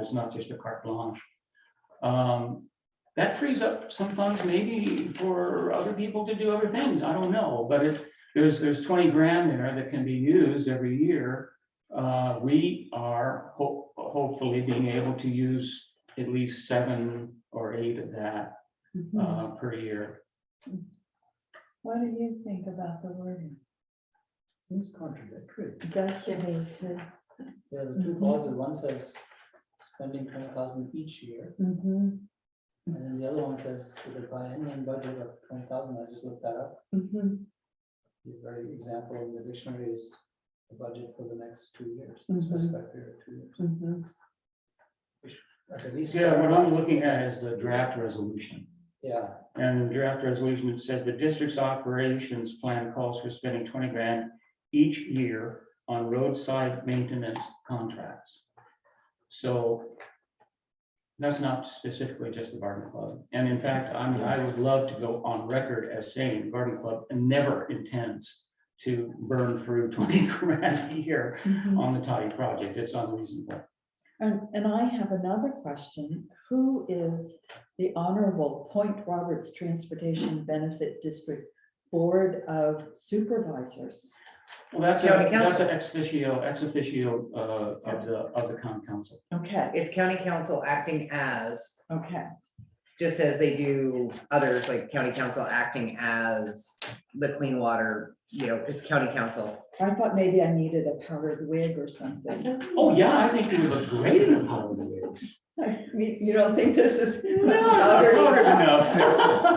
It's not just a carte blanche. Um, That frees up some funds maybe for other people to do other things. I don't know, but it, there's, there's twenty grand there that can be used every year. Uh, we are ho- hopefully being able to use at least seven or eight of that, Mhm. Hmm. uh, per year. What do you think about the wording? Seems contradictory. Does it Yes. need to- Yeah, the two Mhm. clauses, one says spending twenty thousand each year, Mhm, and then the other one says to decline any budget of twenty thousand, I just looked that up. mhm, The very example in the dictionary is the budget for the next two years, Mm-hmm. Mhm. specified period, two years. mhm. At least. Yeah, what I'm looking at is the draft resolution. Yeah, And the draft resolution it says the district's operations plan calls for spending twenty grand each year on roadside maintenance contracts. So that's not specifically just the garden club. And in fact, I mean, I would love to go on record as saying the garden club never intends to burn through twenty grand a year mhm. on the toddy project. It's unreasonable. And, and I have another question. Who is the Honorable Point Roberts Transportation Benefit District Board of Supervisors? Well, that's a, County that's council. an ex officio, ex officio uh, of the, of the county council. Okay, It's county council acting as, okay, just as they do others, like county council acting as the clean water, you know, it's county council. I thought maybe I needed a powdered wig or something. Oh, yeah, I think you would look great in a powder wig. Oh, You, you don't think this is? Powdered enough.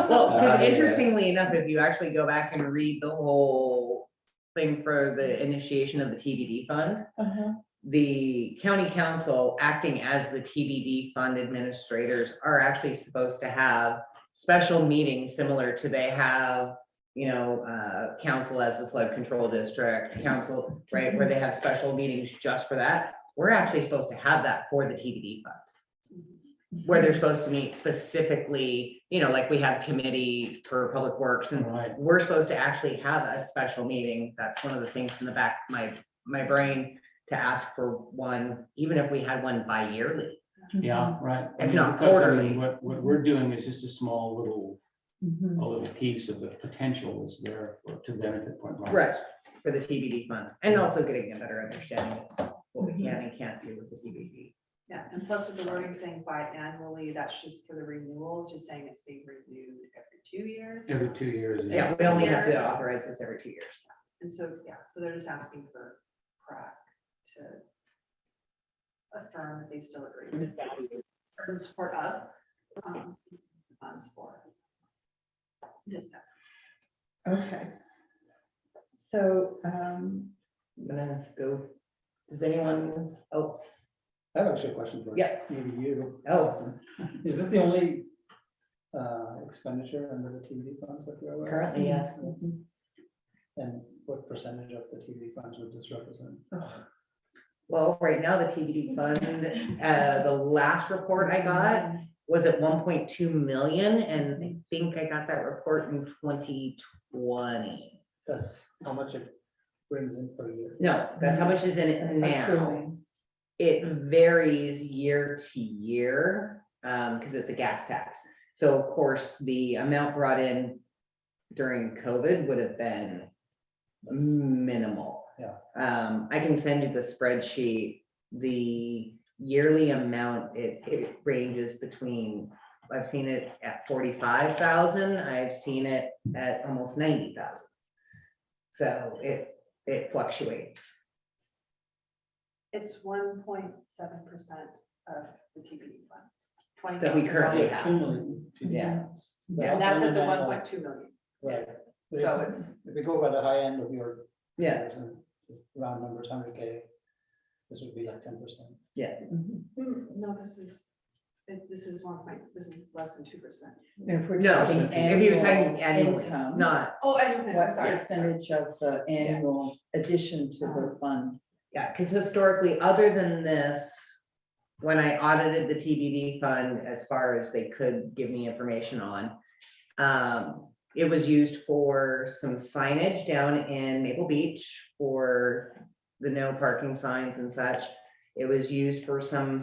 Well, Uh, because yeah. interestingly enough, if you actually go back and read the whole thing for the initiation of the TBD fund, Uh-huh. the county council acting as the TBD fund administrators are actually supposed to have special meetings similar to they have, you know, uh, council as the flood control district, council, right, where they have special meetings just for that. We're actually supposed to have that for the TBD fund where they're supposed to meet specifically, you know, like we have committee for public works and Right, we're supposed to actually have a special meeting. That's one of the things in the back, of my, my brain to ask for one, even if we had one bi-yearly. Mm-hmm, yeah, right. I If mean, not because, I mean, quarterly. What, what we're doing is just a small little, Mhm. a little piece of the potential is there for- to benefit Point Roberts. Right. For the TBD fund and also getting a better understanding of what we can and can't do with the TBD. Yeah, and plus with the wording saying biannually, that's just for the renewal, just saying it's being renewed every two years. Every two years. Yeah, we only have to authorize this every two years. And so, yeah, so they're just asking for CRAC to affirm that they still agree with that, or to support up, um, funds for this. effort. Okay. So, um, I'm gonna go, does anyone else? I have actually a question for you. Yeah. Maybe you. Oh. Is this the only uh, expenditure under the TBD funds that you're aware of? Currently, yes. And what percentage of the TBD funds would this represent? Well, right now, the TBD fund, uh, the last report I got was at one point two million, and I think I got that report in twenty twenty. That's how much it brings in per year. No, that's how much is in it now. Accruing. It varies year to year, um, because it's a gas tax. So of course, the amount brought in during COVID would have been minimal. Yeah. Um, I can send you the spreadsheet, the yearly amount, it, it ranges between, I've seen it at forty-five thousand, I've seen it at almost ninety thousand. So it, it fluctuates. It's one point seven percent of the TBD fund. 20 That we currently The have. cumulative TBD Yeah. funds. Yeah. And that's at the Right. one point two million. Right. But So if- it's- If we go by the high end of your. Yeah, numbers and Round numbers, hundred K, this would be like ten percent. Mhm. Hmm, No, this is, it- this is one point, this is less than two percent. If we're No, talking if he was annual talking annually, income, not, Oh, I don't know, I'm What sorry. percentage of the annual addition to the fund? yeah, because historically, other than this, when I audited the TBD fund, as far as they could give me information on, um, it was used for some signage down in Maple Beach for the no parking signs and such. It was used for some